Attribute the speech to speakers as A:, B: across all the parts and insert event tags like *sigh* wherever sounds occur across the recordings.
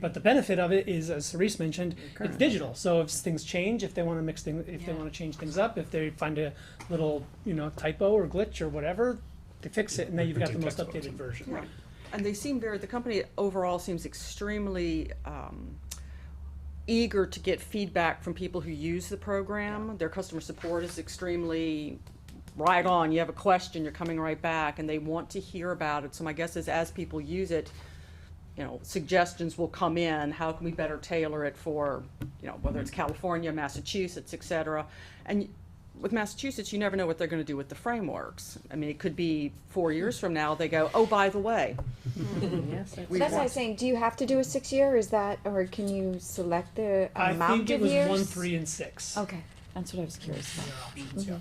A: But the benefit of it is, as Cerise mentioned, it's
B: Current.
A: digital. So if things change, if they want to mix things, if they
B: Yeah.
A: want to change things up, if they find a little, you know, typo or glitch or whatever, they fix it, and then you've got the most
C: Detectable.
A: updated version.
B: Right. And they seem very, the company overall seems extremely um, eager to get feedback from people who use the program. Their customer support is extremely right on. You have a question, you're coming right back, and they want to hear about it. So my guess is as people use it, you know, suggestions will come in, how can we better tailor it for, you know, whether it's California, Massachusetts, et cetera. And with Massachusetts, you never know what they're gonna do with the frameworks. I mean, it could be four years from now, they go, oh, by the way. we
D: Mm-hmm. That's what I *laughs*
B: want-
D: was saying. Do you have to do a six year? Is that, or can you select the
A: I
D: amount
A: think it
D: of
A: was
D: years? Oh.
A: one, three, and six.
D: Okay, that's what I was curious about.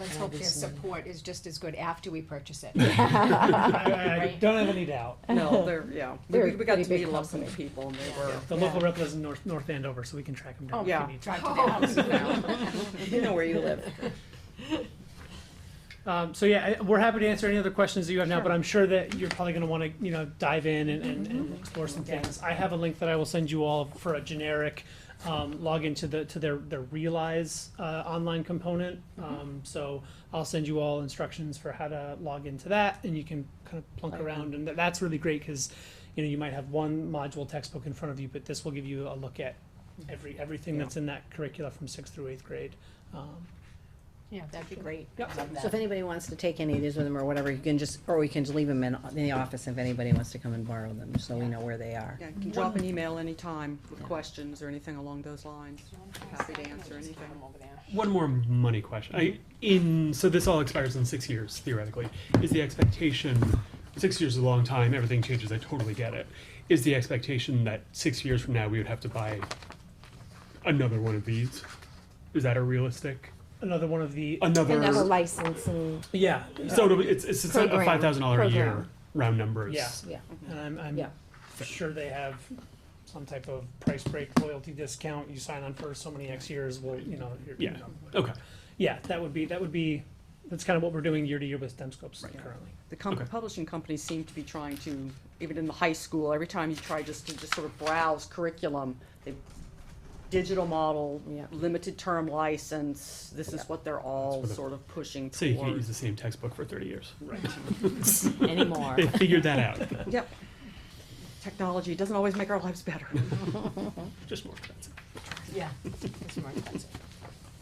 E: Let's hope their support is just as good after we purchase it.
A: I, I
E: Right.
A: don't have any doubt.
B: No, they're, yeah, we,
D: They're a
B: we got
D: pretty
B: to
D: big
B: meet a lot of
D: company.
B: people and they *laughs* were,
A: The local rep lives in North North Andover, so we can track them down. if we
B: yeah.
A: need to.
E: Drive to
F: Oh,
E: their
F: *laughs*
E: house now.
D: *laughs*
B: you know where you live.
A: Um, so yeah, I- we're happy to answer any other questions that you have now, but I'm sure that you're probably gonna wanna, you know, dive in and, and, and explore some things. I have a link that I will send you all for a generic, um, login to the, to their, their Realize, uh, online component. Um, so I'll send you all instructions for how to log into that and you can kind of plunk around and tha- that's really great, cause you know, you might have one module textbook in front of you, but this will give you a look at every, everything
B: Yeah.
A: that's in that curricula from sixth through eighth grade. Um,
E: Yeah, that'd be great.
A: Yep.
E: Love
G: So if
E: that.
G: anybody wants to take any of these with them or whatever, you can just, or we can just leave them in, in the office if anybody wants to come and borrow them, so we know where they are.
B: Yeah, you can drop an email anytime with questions or anything along those lines. Happy to answer anything.
C: One more money question. I, in so this all expires in six years theoretically. Is the expectation six years is a long time? Everything changes. I totally get it. Is the expectation that six years from now we would have to buy another one of these? Is that a realistic?
A: Another one of the,
C: Another.
D: Another license and,
A: yeah.
C: so it'll be- it's it's, it's a
D: Program.
C: five thousand dollar a year
D: Program.
C: round numbers.
A: Yeah.
G: Yeah.
A: And I'm, I'm
G: Yeah.
A: sure they have some type of price break loyalty discount. You sign on for so many X years, well, you know. you're-
C: Yeah. Okay.
A: Yeah, that would be, that would be, that's kind of what we're doing year to year with STEM scopes currently.
B: The com-
C: Okay.
B: publishing companies seem to be trying to, even in the high school, every time you try just to just sort of browse curriculum, they, digital model,
G: Yeah.
B: limited term license, this is what they're all
C: That's what it-
B: sort of pushing
C: So you can't use
B: towards.
C: the same textbook for thirty years.
G: Anymore.
C: They figured that out.
B: Yep. Technology doesn't always make our lives better.
C: *laughs* Just more expensive.
E: *laughs* Yeah. It's more expensive.
G: *laughs*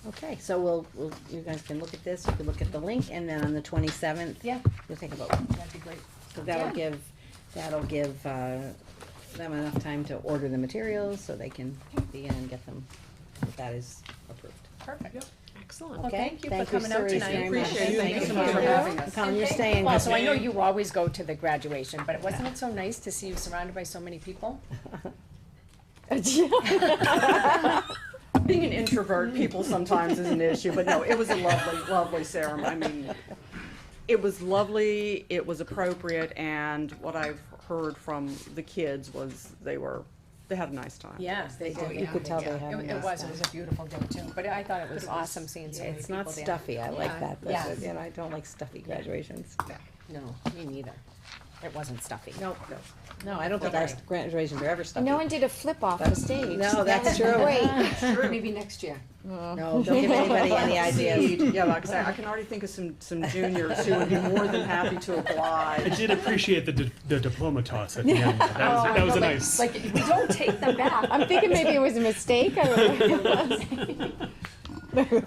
G: Okay, so we'll, we'll, you guys can look at this, you can look at the link, and then on the twenty-seventh,
E: Yeah,
G: you'll take a vote.
E: that'd be great.
G: So that'll
E: Yeah.
G: give, that'll give, uh, them enough time to order the materials, so they can begin and get them, if that is approved.
E: Perfect.
G: Excellent.
F: Well,
G: Okay,
F: thank you for
G: thank you,
F: coming out
G: Cerise,
F: tonight.
G: very much.
B: Appreciate it. Thank you so
G: Thank
B: much for
G: you.
B: having us.
G: Colin, you're staying.
F: Well, so I know you always go to the graduation, but wasn't it so nice to see you surrounded by so many people?
B: Being an introvert, people sometimes is an issue, but no, it was a lovely, lovely ceremony. I mean, it was lovely, it was appropriate, and what I've heard from the kids was they were, they had a nice time.
F: Yes, they
E: Oh,
F: did.
E: yeah.
F: It
G: You could tell
E: Yeah.
G: they had a
F: it
G: nice
F: was,
G: time.
F: it was a beautiful day too, but I thought it was awesome seeing so many
G: It's
F: people there.
G: not stuffy, I like
F: Yeah.
G: that,
F: Yeah.
G: that's, you know, I don't like stuffy graduations.
F: No, me neither. It wasn't stuffy.
G: No, no, I don't think our graduations are ever stuffy.
D: no one did a flip off the stage.
G: No, that's
D: That was
G: true. *laughs*
D: Great.
E: Maybe next year.
G: No, don't give
F: *laughs*
G: anybody *laughs* any ideas.
B: Indeed. Yeah, like I say, I can already think of some, some juniors who would be more than happy to
C: I
B: oblige.
C: did appreciate the, di- the diploma toss at the *laughs* end. That was,
D: Oh,
C: that was a nice.
F: Like, we don't take them back.
D: I'm thinking maybe it was a mistake. I don't know.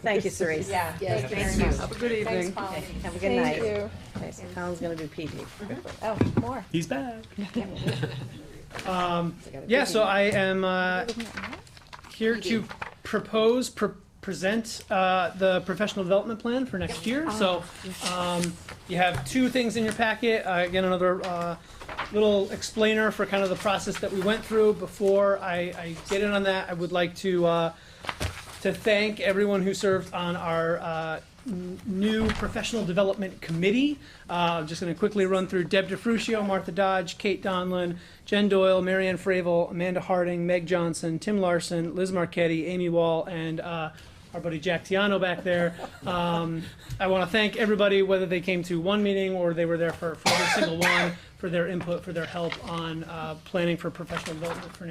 G: Thank you, Cerise.
F: Yeah, thank you very much.
B: Have a good
F: Thanks,
B: evening.
F: Colin.
G: Have a good
D: Thank
G: night.
D: you.
G: Okay, so Colin's gonna do PD. quickly.
D: Oh, more.
C: He's back.
G: So I gotta
A: Yeah,
G: do
A: so I am uh, here to propose, pre- present uh, the professional development plan for next year. So um, you have two things in your packet. Uh, Again, another uh, little explainer for kind of the process that we went through. Before I I get in on that, I would like to uh, to thank everyone who served on our uh, n- new professional development committee. Uh, I'm just going to quickly run through Deb DeFrucio, Martha Dodge, Kate Donlin, Jen Doyle, Marianne Fravel, Amanda Harding, Meg Johnson, Tim Larson, Liz Marquetti, Amy Wall, and uh, our buddy Jack Tiano back there. Um, I want to thank everybody, whether they came to one meeting or they were there for, for every single one, for their input, for their help on uh, planning for professional development for